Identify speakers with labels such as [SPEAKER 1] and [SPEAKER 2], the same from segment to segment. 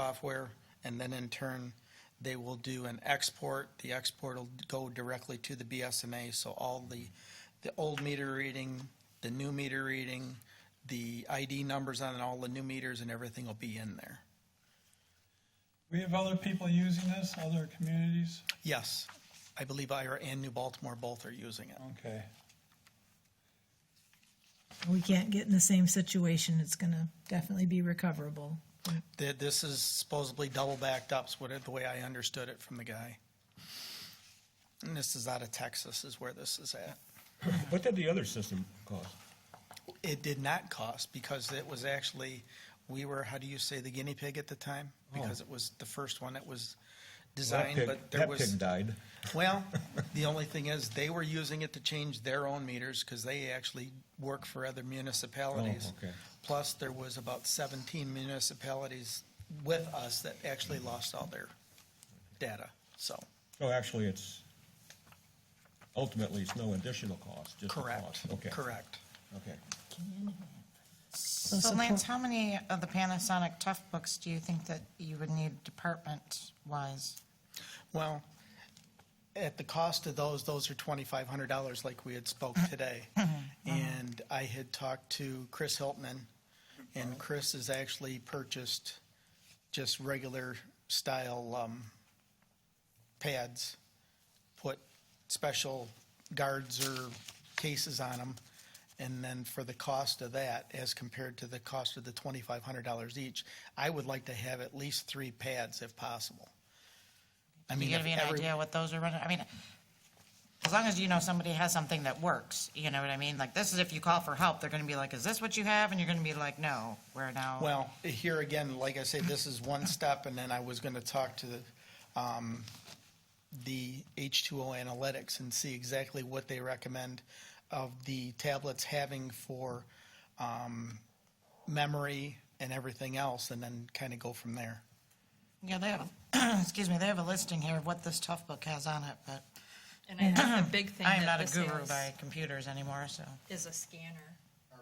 [SPEAKER 1] software, and then in turn, they will do an export. The export will go directly to the BSNA, so all the, the old meter reading, the new meter reading, the ID numbers on all the new meters and everything will be in there.
[SPEAKER 2] We have other people using this, other communities?
[SPEAKER 1] Yes, I believe Ira and New Baltimore both are using it.
[SPEAKER 2] Okay.
[SPEAKER 3] We can't get in the same situation. It's going to definitely be recoverable.
[SPEAKER 1] Th- This is supposedly double backed up, is what, it- the way I understood it from the guy. And this is out of Texas is where this is at.
[SPEAKER 4] What did the other system cost?
[SPEAKER 1] It did not cost because it was actually, we were, how do you say, the guinea pig at the time? Because it was the first one that was designed,
[SPEAKER 4] Oh. That pig-
[SPEAKER 1] but there
[SPEAKER 4] That
[SPEAKER 1] was.
[SPEAKER 4] pig died.
[SPEAKER 1] Well, the only thing is, they were using it to change their own meters because they actually work for other municipalities.
[SPEAKER 4] Oh, okay.
[SPEAKER 1] Plus, there was about seventeen municipalities with us that actually lost all their data, so.
[SPEAKER 4] So actually, it's, ultimately, it's no additional cost, just the
[SPEAKER 1] Correct,
[SPEAKER 4] cost. Okay.
[SPEAKER 1] correct.
[SPEAKER 4] Okay.
[SPEAKER 3] So
[SPEAKER 5] So Lance, how many of the Panasonic Tough books do you think that you would need department-wise?
[SPEAKER 1] Well, at the cost of those, those are twenty-five hundred dollars like we had spoke
[SPEAKER 5] Mm-hmm.
[SPEAKER 1] today. And I had talked to Chris Hiltman, and Chris has actually purchased just regular style, um, pads, put special guards or cases on them. And then for the cost of that, as compared to the cost of the twenty-five hundred dollars each, I would like to have at least three pads if possible. I
[SPEAKER 5] Do
[SPEAKER 1] mean,
[SPEAKER 5] you have
[SPEAKER 1] if
[SPEAKER 5] an
[SPEAKER 1] every,
[SPEAKER 5] idea what those are running? I mean, as long as you know somebody has something that works, you know what I mean? Like, this is if you call for help, they're gonna be like, is this what you have? And you're gonna be like, no, we're now.
[SPEAKER 1] Well, here again, like I say, this is one step, and then I was gonna talk to the, um, the H2O Analytics and see exactly what they recommend of the tablets having for, um, memory and everything else, and then kind of go from there.
[SPEAKER 5] Yeah, they have, excuse me, they have a listing here of what this Tough book has on it, but
[SPEAKER 6] And I think the big thing
[SPEAKER 5] I am
[SPEAKER 6] that
[SPEAKER 5] not a
[SPEAKER 6] this
[SPEAKER 5] guru
[SPEAKER 6] is,
[SPEAKER 5] by computers anymore, so.
[SPEAKER 6] is a scanner,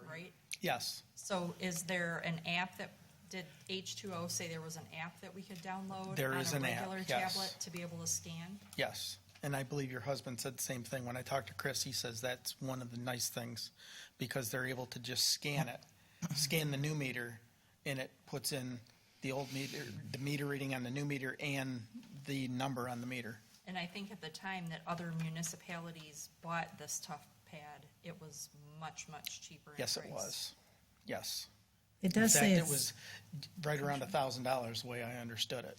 [SPEAKER 6] right?
[SPEAKER 1] Yes,
[SPEAKER 6] So is there an app that, did H2O say there was an app that we could download?
[SPEAKER 1] There is an app,
[SPEAKER 6] On a regular
[SPEAKER 1] yes.
[SPEAKER 6] tablet to be able to scan?
[SPEAKER 1] yes. And I believe your husband said the same thing. When I talked to Chris, he says that's one of the nice things, because they're able to just scan it, scan the new meter, and it puts in the old meter, the meter reading on the new meter and the number on the meter.
[SPEAKER 6] And I think at the time that other municipalities bought this Tough Pad, it was much, much cheaper in
[SPEAKER 1] Yes, it
[SPEAKER 6] price.
[SPEAKER 1] was. Yes.
[SPEAKER 3] it
[SPEAKER 1] In
[SPEAKER 3] does
[SPEAKER 1] fact,
[SPEAKER 3] say
[SPEAKER 1] it
[SPEAKER 3] it's,
[SPEAKER 1] was right around a thousand dollars, the way I understood it.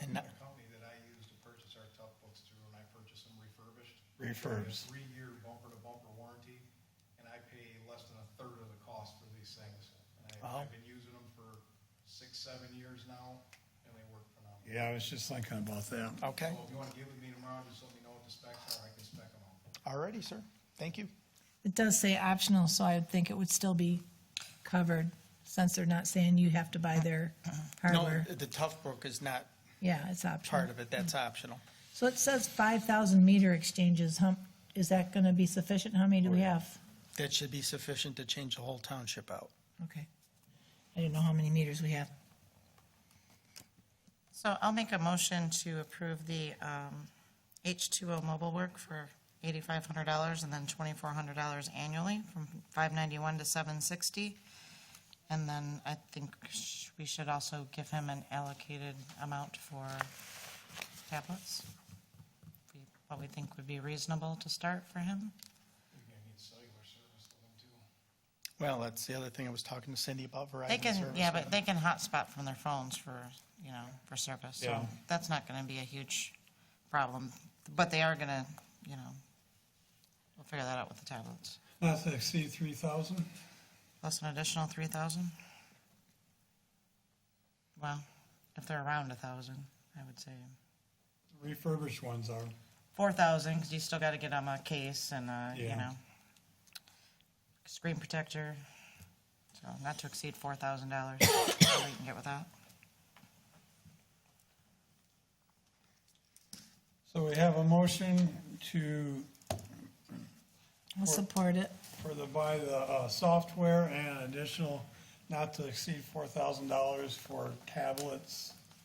[SPEAKER 1] And that-
[SPEAKER 7] A company that I use to purchase our tough books through, and I purchase them refurbished.
[SPEAKER 2] Refurbs.
[SPEAKER 7] Three-year bumper-to-bumper warranty, and I pay less than a third of the cost for these things. And
[SPEAKER 1] Oh.
[SPEAKER 7] I- I've been using them for six, seven years now, and they work phenomenal.
[SPEAKER 2] Yeah, I was just thinking about that.
[SPEAKER 1] okay,
[SPEAKER 7] So if you want to get with me tomorrow, just let me know what the specs are, I can spec them out.
[SPEAKER 1] all righty, sir. Thank you.
[SPEAKER 3] it does say optional, so I would think it would still be covered since they're not saying you have to buy their
[SPEAKER 1] No,
[SPEAKER 3] hardware.
[SPEAKER 1] the Tough Brook is not
[SPEAKER 3] Yeah, it's optional.
[SPEAKER 1] part of it. That's optional.
[SPEAKER 3] So it says five thousand meter exchanges. How, is that going to be sufficient? How many do we have?
[SPEAKER 1] That should be sufficient to change the whole township out.
[SPEAKER 3] Okay. I didn't know how many meters we have.
[SPEAKER 5] So I'll make a motion to approve the um, H2O mobile work for $8,500 and then $2,400 annually from 591 to 760. And then I think sh- we should also give him an allocated amount for tablets. We- What we think would be reasonable to start for him.
[SPEAKER 7] You're gonna need cellular service with them too.
[SPEAKER 1] Well, that's the other thing I was talking to Cindy about
[SPEAKER 5] They
[SPEAKER 1] Verizon
[SPEAKER 5] can,
[SPEAKER 1] service.
[SPEAKER 5] yeah, but they can hotspot from their phones for, you know, for service. So
[SPEAKER 2] Yeah.
[SPEAKER 5] that's not going to be a huge problem, but they are going to, you know, we'll figure that out with the tablets.
[SPEAKER 2] Not to exceed three thousand?
[SPEAKER 5] Plus an additional three thousand? Well, if they're around a thousand, I would say.
[SPEAKER 2] Refurbished ones are.
[SPEAKER 5] Four thousand, because you still got to get them a case and, a, you
[SPEAKER 2] Yeah.
[SPEAKER 5] know, screen protector. So not to exceed four thousand dollars, we can get with that.
[SPEAKER 2] So we have a motion to,
[SPEAKER 3] I'll support it.
[SPEAKER 2] for the, buy the, uh, software and additional, not to exceed four thousand dollars for tablets